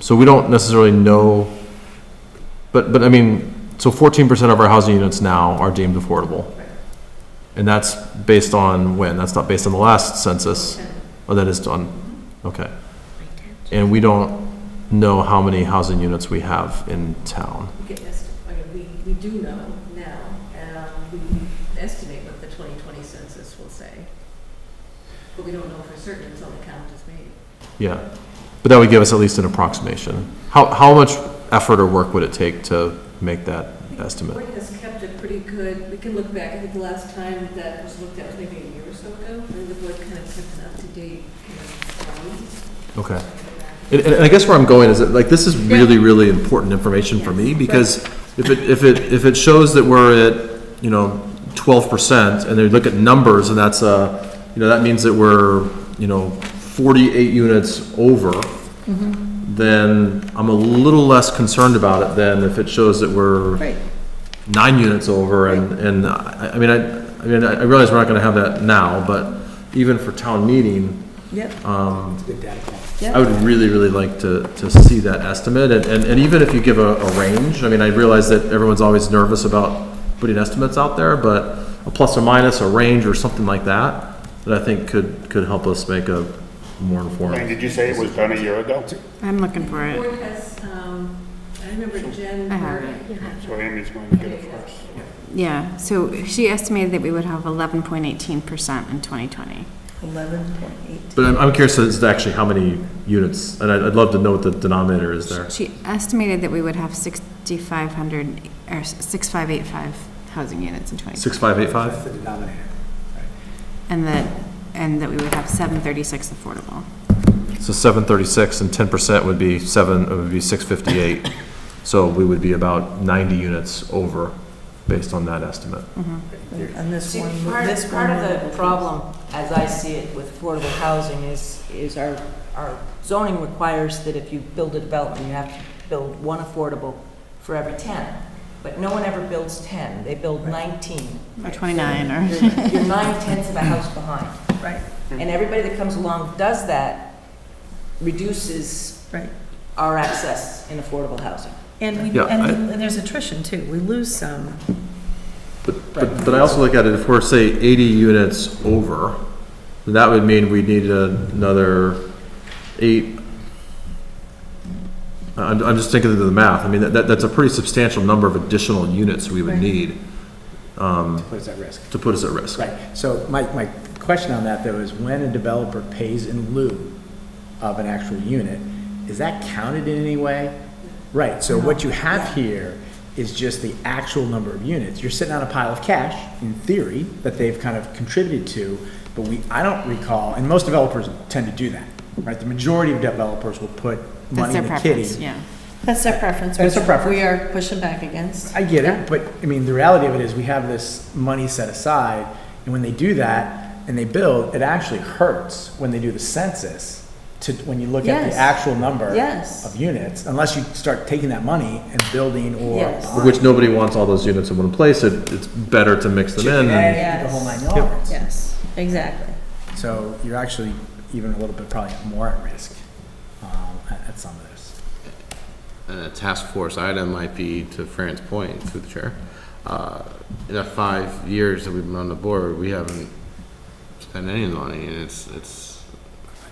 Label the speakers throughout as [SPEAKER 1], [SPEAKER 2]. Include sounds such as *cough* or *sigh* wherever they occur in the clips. [SPEAKER 1] So we don't necessarily know, but, but I mean, so fourteen percent of our housing units now are deemed affordable. And that's based on when? That's not based on the last census? Oh, that is done, okay. And we don't know how many housing units we have in town.
[SPEAKER 2] We can estimate, I mean, we, we do know now, um, we can estimate what the 2020 census will say. But we don't know for certain until the count is made.
[SPEAKER 1] Yeah, but that would give us at least an approximation. How, how much effort or work would it take to make that estimate?
[SPEAKER 2] Board has kept it pretty good, we can look back, I think the last time that was looked at was maybe a year or so ago, and the board kind of kept an up-to-date, kind of,
[SPEAKER 1] Okay. And, and I guess where I'm going is that, like, this is really, really important information for me, because if it, if it, if it shows that we're at, you know, twelve percent, and they look at numbers, and that's a, you know, that means that we're, you know, forty-eight units over, then I'm a little less concerned about it than if it shows that we're nine units over, and, and, I, I mean, I, I mean, I realize we're not gonna have that now, but even for town meeting,
[SPEAKER 3] Yep,
[SPEAKER 1] Um, I would really, really like to, to see that estimate, and, and and even if you give a, a range, I mean, I realize that everyone's always nervous about putting estimates out there, but a plus or minus, a range or something like that, that I think could, could help us make a more
[SPEAKER 4] And
[SPEAKER 1] informed.
[SPEAKER 4] did you say it was done a year ago?
[SPEAKER 3] I'm looking for
[SPEAKER 2] The
[SPEAKER 3] it.
[SPEAKER 2] board has, um, I remember Jen.
[SPEAKER 3] I have
[SPEAKER 2] Burke-
[SPEAKER 4] So Amy's going to get it first.
[SPEAKER 3] Yeah, so she estimated that we would have 11.18% in 2020.
[SPEAKER 5] Eleven point eight.
[SPEAKER 1] But I'm, I'm curious as to actually how many units, and I'd, I'd love to know what the denominator is there.
[SPEAKER 3] She estimated that we would have 6,500, or 6,585 housing units in 2020.
[SPEAKER 1] Six, five, eight, five?
[SPEAKER 3] And that, and that we would have 736 affordable.
[SPEAKER 1] So seven thirty-six and ten percent would be seven, it would be six fifty-eight. So we would be about ninety units over, based on that estimate.
[SPEAKER 3] Mm-hmm.
[SPEAKER 5] On this
[SPEAKER 6] See,
[SPEAKER 5] one,
[SPEAKER 6] part,
[SPEAKER 5] this one.
[SPEAKER 6] part of the problem, as I see it, with affordable housing is, is our, our zoning requires that if you build a development, you have to build one affordable for every ten. But no one ever builds ten, they build nineteen.
[SPEAKER 3] Or 29, or,
[SPEAKER 6] You're you're nine tenths of a house behind.
[SPEAKER 5] Right,
[SPEAKER 6] And everybody that comes along does that reduces
[SPEAKER 5] right.
[SPEAKER 6] our access in affordable housing.
[SPEAKER 5] And we,
[SPEAKER 1] Yeah, I-
[SPEAKER 5] and and there's attrition too. We lose some.
[SPEAKER 1] But, but, but I also look at it, if we're, say, eighty units over, then that would mean we need another eight. I'm, I'm just thinking of the math, I mean, that, that's a pretty substantial number of additional units we would need
[SPEAKER 7] What is that risk?
[SPEAKER 1] to put us at risk.
[SPEAKER 7] Right, so my, my question on that though is when a developer pays in lieu of an actual unit, is that counted in any way? Right, so what you have here is just the actual number of units. You're sitting on a pile of cash, in theory, that they've kind of contributed to, but we, I don't recall, and most developers tend to do that, right? The majority of developers will put
[SPEAKER 3] that's
[SPEAKER 7] money
[SPEAKER 3] their
[SPEAKER 7] in the kitty.
[SPEAKER 3] preference, yeah.
[SPEAKER 5] That's their preference.
[SPEAKER 7] That's their
[SPEAKER 5] which
[SPEAKER 7] preference.
[SPEAKER 5] We are pushing back against.
[SPEAKER 7] I get it, but I mean, the reality of it is we have this money set aside, and when they do that and they build, it actually hurts when they do the census to, when you look at
[SPEAKER 5] Yes.
[SPEAKER 7] the actual number
[SPEAKER 5] Yes.
[SPEAKER 7] of units, unless you start taking that money and building or.
[SPEAKER 5] Yes.
[SPEAKER 1] Which nobody wants all those units in one place, it, it's better to mix them in. and-
[SPEAKER 7] Yeah, The whole nine
[SPEAKER 5] Yes.
[SPEAKER 7] yards.
[SPEAKER 5] Yes, exactly.
[SPEAKER 7] So you're actually even a little bit probably more at risk um, at at some of this.
[SPEAKER 8] and a task force item might be, to Fran's point, through the chair, uh, in the five years that we've been on the board, we haven't spent any money, and it's, it's,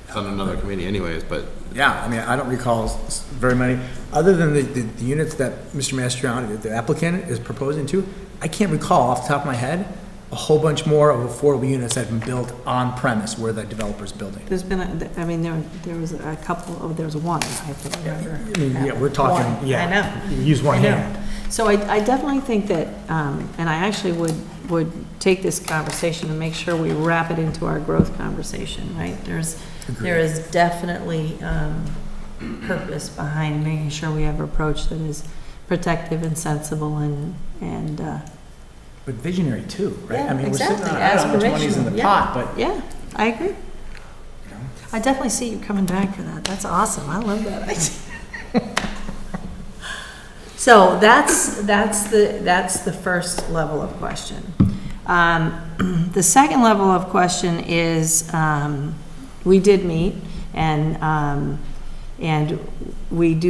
[SPEAKER 8] it's on another committee anyways, but
[SPEAKER 7] Yeah, I mean, I don't recall s- s- very many, other than the, the the units that Mr. Mastriani, the- the applicant, is proposing to, I can't recall off the top of my head, a whole bunch more of affordable units that have been built on premise where the developer's building.
[SPEAKER 5] There's been, a- I mean, there, there was a couple, oh, there was one, I have to remember.
[SPEAKER 7] I mean, yeah, we're talking,
[SPEAKER 5] One,
[SPEAKER 7] yeah.
[SPEAKER 5] I know.
[SPEAKER 7] you Use one
[SPEAKER 5] I know.
[SPEAKER 7] hand.
[SPEAKER 5] So I, I definitely think that, um, and I actually would, would take this conversation and make sure we wrap it into our growth conversation, right? There's, there is definitely, um, purpose behind making sure we have an approach that is protective and sensible and, and, uh,
[SPEAKER 7] But visionary too, right?
[SPEAKER 5] Yeah,
[SPEAKER 7] I mean, we're sitting on,
[SPEAKER 5] exactly.
[SPEAKER 7] I don't know how much money's in
[SPEAKER 5] Aspirational,
[SPEAKER 7] the
[SPEAKER 5] yeah.
[SPEAKER 7] pot, but
[SPEAKER 5] yeah, I agree. I definitely see you coming back for that. That's awesome. I love that idea.
[SPEAKER 7] *laughs*
[SPEAKER 5] So that's, that's the, that's the first level of question. Um, *clears throat* The second level of question is, um, we did meet, and, um, and we do